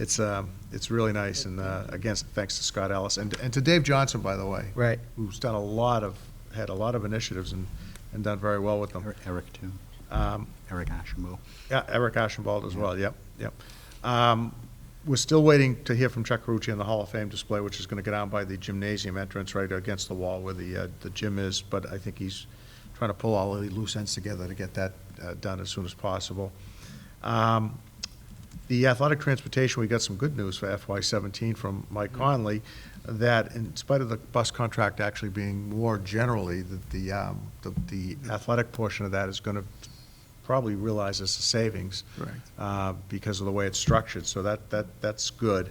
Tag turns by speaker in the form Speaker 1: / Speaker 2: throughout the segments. Speaker 1: It's, uh, it's really nice, and uh, again, thanks to Scott Ellis, and, and to Dave Johnson, by the way.
Speaker 2: Right.
Speaker 1: Who's done a lot of, had a lot of initiatives and, and done very well with them.
Speaker 3: Er- Eric, too.
Speaker 1: Um,
Speaker 3: Eric Ashenbo.
Speaker 1: yeah, Eric Ashenbald as well, yep, yep. Um, We're still waiting to hear from Chuck Carucci on the Hall of Fame display, which is going to go down by the gymnasium entrance, right against the wall where the, uh, the gym is, but I think he's trying to pull all the loose ends together to get that uh, done as soon as possible. Um, The athletic transportation, we got some good news for FY seventeen from Mike Conley, that in spite of the bus contract actually being more generally, that the, um, the- the athletic portion of that is going to probably realize it's a savings.
Speaker 2: Correct.
Speaker 1: uh, Because of the way it's structured, so that, that, that's good.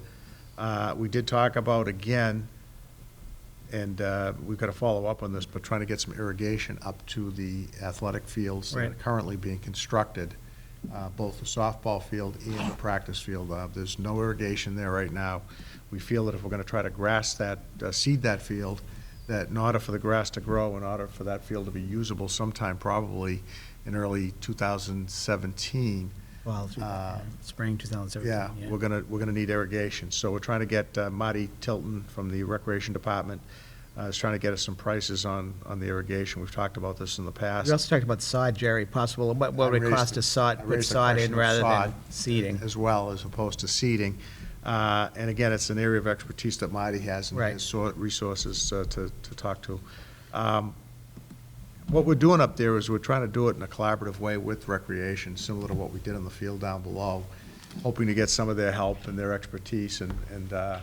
Speaker 1: Uh, We did talk about, again, and uh, we've got to follow up on this, but trying to get some irrigation up to the athletic fields that are
Speaker 2: Right.
Speaker 1: currently being constructed, uh, both the softball field and the practice field. Uh, There's no irrigation there right now. We feel that if we're going to try to grass that, uh, seed that field, that in order for the grass to grow, in order for that field to be usable sometime probably in early 2017,
Speaker 2: Well, through
Speaker 1: Uh,
Speaker 2: spring 2017.
Speaker 1: yeah, we're gonna, we're gonna need irrigation. So we're trying to get uh, Marty Tilton from the Recreation Department, uh, is trying to get us some prices on, on the irrigation. We've talked about this in the
Speaker 2: We
Speaker 1: past.
Speaker 2: also talked about sod, Jerry, possible, what what
Speaker 1: I
Speaker 2: would it
Speaker 1: raised
Speaker 2: cost
Speaker 1: the-
Speaker 2: to
Speaker 1: I
Speaker 2: sod, put
Speaker 1: raised the
Speaker 2: sod
Speaker 1: question
Speaker 2: in
Speaker 1: of
Speaker 2: rather than
Speaker 1: sod
Speaker 2: seeding?
Speaker 1: As well, as opposed to seeding. Uh, And again, it's an area of expertise that Marty has and
Speaker 2: Right.
Speaker 1: his sor- resources uh, to, to talk to. Um, What we're doing up there is we're trying to do it in a collaborative way with recreation, similar to what we did on the field down below, hoping to get some of their help and their expertise and, and, uh,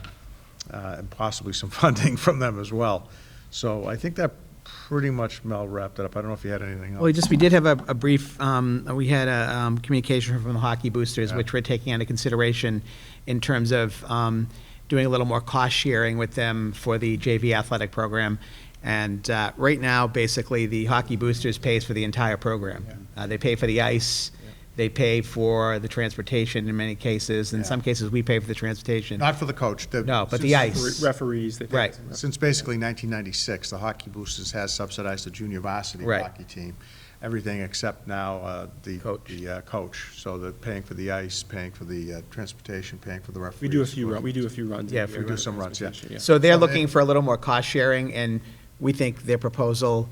Speaker 1: uh, and possibly some funding from them as well. So I think that pretty much, Mel, wrapped it up. I don't know if you had anything else.
Speaker 2: Well, we just, we did have a a brief, um, we had a um, communication from the hockey boosters,
Speaker 1: Yeah.
Speaker 2: which we're taking into consideration in terms of um, doing a little more cost sharing with them for the JV athletic program. And uh, right now, basically, the hockey boosters pays for the entire program. Uh, They pay for the ice, they pay for the transportation in many cases, in
Speaker 1: Yeah.
Speaker 2: some cases, we pay for the transportation.
Speaker 1: Not for the coach. the-
Speaker 2: No, but the ice.
Speaker 4: Referees. they-
Speaker 2: Right.
Speaker 1: Since basically 1996, the Hockey Boosters has subsidized the junior varsity
Speaker 2: Right.
Speaker 1: hockey team. Everything except now uh, the.
Speaker 2: Coach.
Speaker 1: The uh, coach. So they're paying for the ice, paying for the uh, transportation, paying for the referees.
Speaker 4: We do a few, run- we do a few runs. a
Speaker 2: Yeah, if
Speaker 4: year
Speaker 1: we do
Speaker 4: on
Speaker 1: some runs, yeah.
Speaker 4: transportation,
Speaker 2: So they're
Speaker 1: So they-
Speaker 2: looking for a little more cost sharing, and we think their proposal,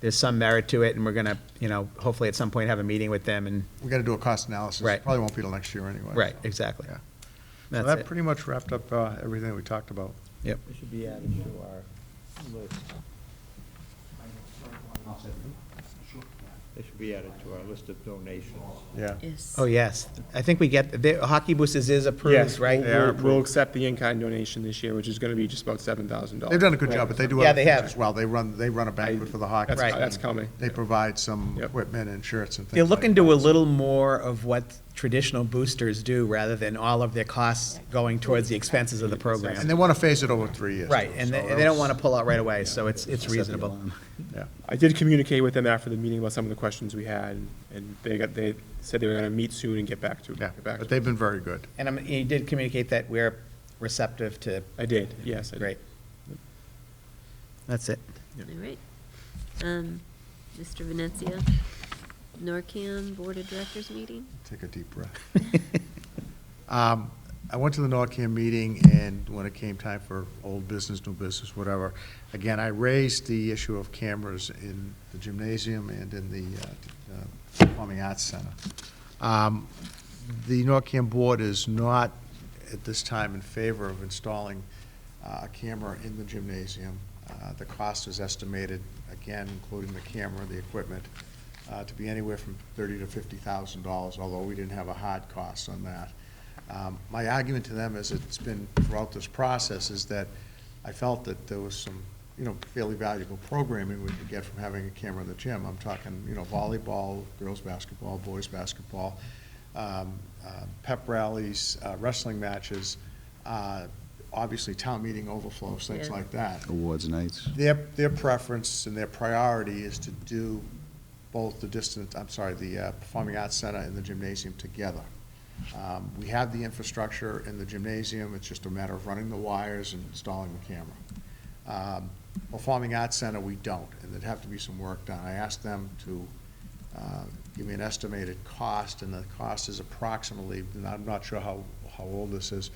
Speaker 2: there's some merit to it, and we're gonna, you know, hopefully at some point have a meeting with them, and,
Speaker 1: We got to do a cost analysis.
Speaker 2: Right.
Speaker 1: Probably won't be till next year anyway.
Speaker 2: right, exactly.
Speaker 1: Yeah. So
Speaker 2: That's
Speaker 1: that
Speaker 2: it.
Speaker 1: pretty much wrapped up uh, everything we talked about.
Speaker 2: Yep.
Speaker 5: It should be added to our list. It should be added to our list of donations.
Speaker 1: Yeah.
Speaker 6: Yes.
Speaker 2: Oh, yes. I think we get, the Hockey Boosters is approved,
Speaker 4: Yes,
Speaker 2: right?
Speaker 1: They are
Speaker 4: We'll, we'll
Speaker 1: approved.
Speaker 4: accept the in-kind donation this year, which is gonna be just about seven thousand dollars.
Speaker 1: They've done a good job, but they do
Speaker 2: Oh, Yeah,
Speaker 1: other
Speaker 2: they
Speaker 1: things
Speaker 2: have.
Speaker 1: as well. They run, they run a banquet for the hockey.
Speaker 4: That's-
Speaker 2: Right.
Speaker 4: that's coming.
Speaker 1: They provide some
Speaker 4: Yep.
Speaker 1: equipment and shirts and things
Speaker 2: They're
Speaker 1: like
Speaker 2: looking to
Speaker 1: that.
Speaker 2: a little more of what traditional boosters do, rather than all of their costs going towards the expenses of the
Speaker 1: And
Speaker 2: program.
Speaker 1: they want to phase it over three years.
Speaker 2: Right,
Speaker 1: too,
Speaker 2: and
Speaker 1: so
Speaker 2: they,
Speaker 1: that
Speaker 2: they don't
Speaker 1: was-
Speaker 2: wanna pull out right away, so it's, it's
Speaker 3: Set the
Speaker 2: reasonable.
Speaker 3: alarm.
Speaker 1: Yeah.
Speaker 4: I did communicate with them after the meeting about some of the questions we had, and they got, they said they were gonna meet soon and get back to,
Speaker 1: Yeah,
Speaker 4: get back
Speaker 1: but
Speaker 4: to.
Speaker 1: they've been very good.
Speaker 2: And I'm, you did communicate that we're receptive to,
Speaker 4: I did, yes, I did.
Speaker 2: great. That's it.
Speaker 6: All right. Um, Mr. Venezia, NORCAM Board of Directors meeting?
Speaker 1: Take a deep breath. Um, I went to the NORCAM meeting, and when it came time for old business, new business, whatever, again, I raised the issue of cameras in the gymnasium and in the uh, uh, Performing Arts Center. Um, The NORCAM board is not, at this time, in favor of installing uh, a camera in the gymnasium. Uh, The cost is estimated, again, including the camera, the equipment, uh, to be anywhere from thirty to fifty thousand dollars, although we didn't have a hard cost on that. Um, My argument to them is it's been throughout this process is that I felt that there was some, you know, fairly valuable programming we could get from having a camera in the gym. I'm talking, you know, volleyball, girls' basketball, boys' basketball, um, uh, pep rallies, uh, wrestling matches, uh, obviously town meeting overflows, things
Speaker 6: Yeah.
Speaker 1: like that
Speaker 3: Awards nights.
Speaker 1: their, their preference and their priority is to do both the distance, I'm sorry, the uh, Performing Arts Center and the gymnasium together. Um, We have the infrastructure in the gymnasium, it's just a matter of running the wires and installing the camera. Um, Performing Arts Center, we don't, and there'd have to be some work done. I asked them to uh, give me an estimated cost, and the cost is approximately, and I'm not sure how, how old this is,